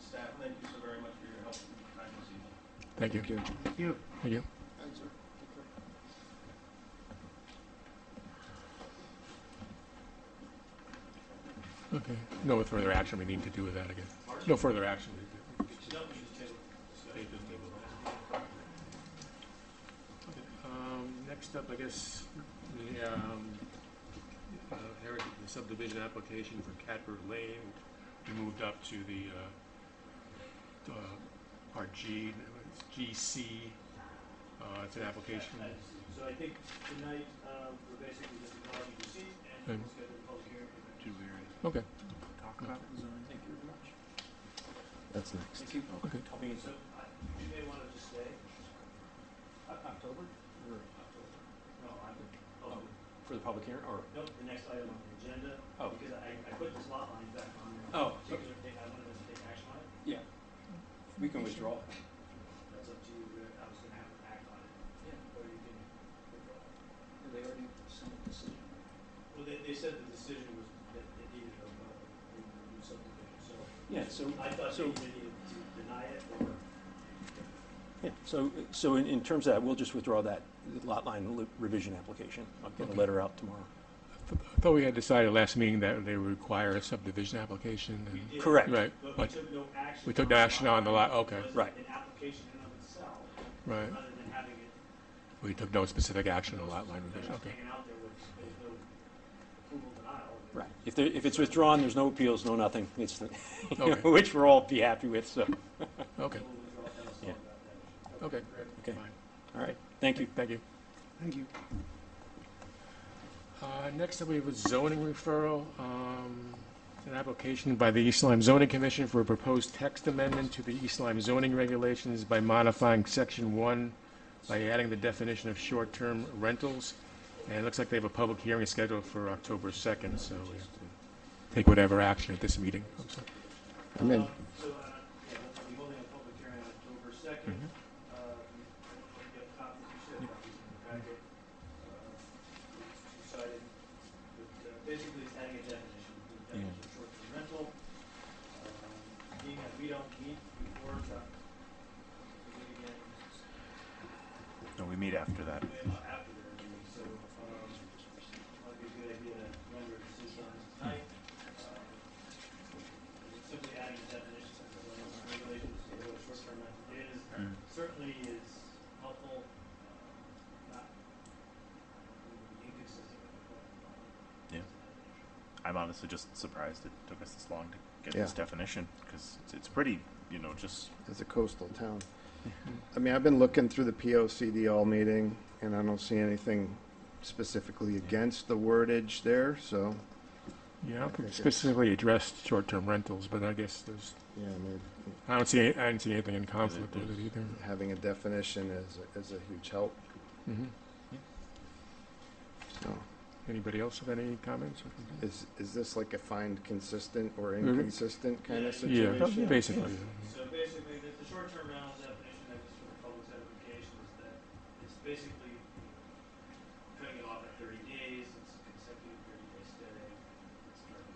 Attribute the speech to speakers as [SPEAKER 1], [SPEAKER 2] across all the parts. [SPEAKER 1] staff, thank you so very much for your help and time this evening.
[SPEAKER 2] Thank you.
[SPEAKER 3] Thank you.
[SPEAKER 2] Thank you.
[SPEAKER 4] Thanks, sir.
[SPEAKER 2] Okay. No further action we need to do with that, I guess. No further action. we need
[SPEAKER 1] No, you just table it.
[SPEAKER 3] Um, Next up, I guess, the, um, uh, Eric, the subdivision application for Catbird Lane, we moved up to the, uh, uh, our G, GC. Uh, It's an application,
[SPEAKER 1] So I think tonight, uh, we're basically just acknowledging receipt and
[SPEAKER 2] And-
[SPEAKER 1] we'll schedule a public hearing.
[SPEAKER 4] Did we
[SPEAKER 2] to- Okay.
[SPEAKER 4] talk
[SPEAKER 2] about
[SPEAKER 4] Thank you very much.
[SPEAKER 5] That's next.
[SPEAKER 4] Thank you.
[SPEAKER 2] Okay.
[SPEAKER 1] I mean, so I- you may want to just stay. October? October. No, I'm, oh,
[SPEAKER 4] For the public hearing, or?
[SPEAKER 1] no, the next item on the agenda.
[SPEAKER 4] Oh.
[SPEAKER 1] Because I, I put this lot line back on there.
[SPEAKER 4] Oh,
[SPEAKER 1] So you're gonna take- I wanted us to take action on it.
[SPEAKER 4] Yeah. We can withdraw.
[SPEAKER 1] That's up to you. I was gonna have an act on it. Yeah. Or you can withdraw it.
[SPEAKER 4] They already sent a decision.
[SPEAKER 1] Well, they, they said the decision was that they needed a, uh, a new subdivision, so
[SPEAKER 4] Yeah, so,
[SPEAKER 1] I thought they
[SPEAKER 4] So-
[SPEAKER 1] needed to deny it or.
[SPEAKER 5] Yeah, so, so in, in terms of that, we'll just withdraw that lot line li- revision application. I'll get a letter out tomorrow.
[SPEAKER 2] I thought we had decided last meeting that they would require a subdivision application.
[SPEAKER 1] We
[SPEAKER 2] and-
[SPEAKER 1] did,
[SPEAKER 5] Correct.
[SPEAKER 2] Right,
[SPEAKER 1] But we
[SPEAKER 2] but,
[SPEAKER 1] took no action.
[SPEAKER 2] we took
[SPEAKER 1] the
[SPEAKER 2] no action on the lot, okay,
[SPEAKER 1] It
[SPEAKER 5] right.
[SPEAKER 1] wasn't an application in and of itself,
[SPEAKER 2] right.
[SPEAKER 1] other than having it,
[SPEAKER 2] We took no specific action on lot line
[SPEAKER 1] they're
[SPEAKER 2] revision,
[SPEAKER 1] just
[SPEAKER 2] okay.
[SPEAKER 1] hanging out there with, there's no approval denial.
[SPEAKER 5] Right. If there, if it's withdrawn, there's no appeals, no nothing. It's, the- you know,
[SPEAKER 2] Okay.
[SPEAKER 5] which we're all be happy with, so,
[SPEAKER 2] Okay,
[SPEAKER 1] So we'll withdraw that, so
[SPEAKER 5] Yeah.
[SPEAKER 1] about that.
[SPEAKER 2] okay.
[SPEAKER 5] okay,
[SPEAKER 3] Fine.
[SPEAKER 5] all right, thank you.
[SPEAKER 2] Thank you.
[SPEAKER 3] Thank you.
[SPEAKER 2] Uh, Next up, we have a zoning referral. um, It's an application by the East Lyme Zoning Commission for a proposed text amendment to the East Lyme zoning regulations by modifying section one by adding the definition of short-term rentals. And it looks like they have a public hearing scheduled for October 2nd, so we have to take whatever action at this meeting. I'm sorry.
[SPEAKER 5] I'm in.
[SPEAKER 1] Uh, So, uh, yeah, we'll be holding a public hearing on October second. Uh, you get copies, you should have copies in the packet. Uh, we Decided, that, uh, basically it's adding a definition, the definition of short-term rental. Um, Being that we don't meet before, uh, we meet again
[SPEAKER 6] No, we meet after that.
[SPEAKER 1] way about after the meeting, so, um, might be a good idea to render a decision on this tonight. Um, Simply adding a definition to the regulations to what short-term rental is,
[SPEAKER 6] Mm.
[SPEAKER 1] certainly is helpful, uh, not inconsistent with what.
[SPEAKER 6] Yeah. I'm honestly just surprised it took us this long to get
[SPEAKER 7] Yeah.
[SPEAKER 6] this definition because it's, it's pretty, you know, just
[SPEAKER 7] as a coastal town. I mean, I've been looking through the POCD all meeting, and I don't see anything specifically against the wordage there, so,
[SPEAKER 2] Yeah, I don't think
[SPEAKER 7] Okay.
[SPEAKER 2] specifically addressed short-term rentals, but I guess there's,
[SPEAKER 7] yeah, I mean,
[SPEAKER 2] I don't see, any- I don't see anything in conflict with it either.
[SPEAKER 7] having a definition is, is a huge help,
[SPEAKER 2] Mhm.
[SPEAKER 7] so.
[SPEAKER 2] Anybody else have any comments?
[SPEAKER 7] Is, is this like a find consistent or inconsistent kind of
[SPEAKER 2] Yeah,
[SPEAKER 7] situation?
[SPEAKER 2] basically.
[SPEAKER 1] So basically, the, the short-term rental definition that was for the public's education is that it's basically cutting it off at thirty days, it's consecutive thirty-day stay, it's direct.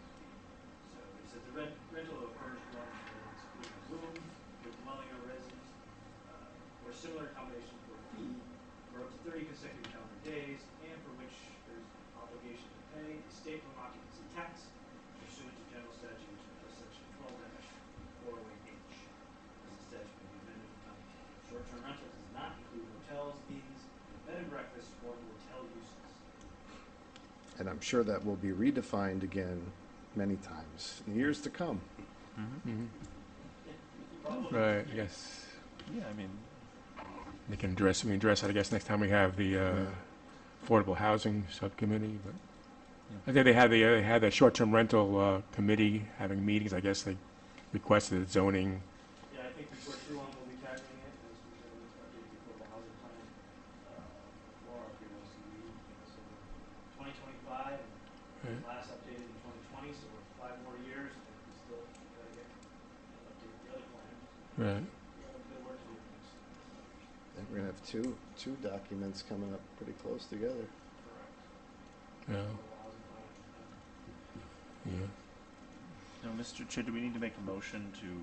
[SPEAKER 1] So it says the rent, rental of furnished dwelling units, including room, your dwelling or residence, uh, or similar accommodation for a fee, for up to thirty consecutive calendar days, and for which there's obligation to pay a state from occupancy tax pursuant to general statute, uh, section twelve dash four oh eight H. This is statute may be amended from time to time. Short-term rental does not include hotels, inns, bed and breakfast, or motel uses.
[SPEAKER 7] And I'm sure that will be redefined again many times in years to come.
[SPEAKER 2] Mhm.
[SPEAKER 1] Probably-
[SPEAKER 2] Right, yes.
[SPEAKER 6] yeah. I mean,
[SPEAKER 2] They can address, we can address that, I guess, next time we have the uh, Affordable Housing Subcommittee, but I think they had the, uh, they had the short-term rental uh, committee having meetings, I guess they requested zoning.
[SPEAKER 1] Yeah, I think before too long we'll be tackling it, as we should have started before the housing plan, uh, or if you want to see, so twenty twenty-five, and
[SPEAKER 2] Right.
[SPEAKER 1] last updated in twenty twenty, so we're five more years, and we still gotta get, an update the other plan.
[SPEAKER 2] Right.
[SPEAKER 1] We have good work to do next.
[SPEAKER 7] And we're gonna have two, two documents coming up pretty close together.
[SPEAKER 1] Correct.
[SPEAKER 2] Yeah,
[SPEAKER 1] Affordable housing plan, and
[SPEAKER 2] yeah.
[SPEAKER 6] no, Mr. Chair, do we need to make a motion to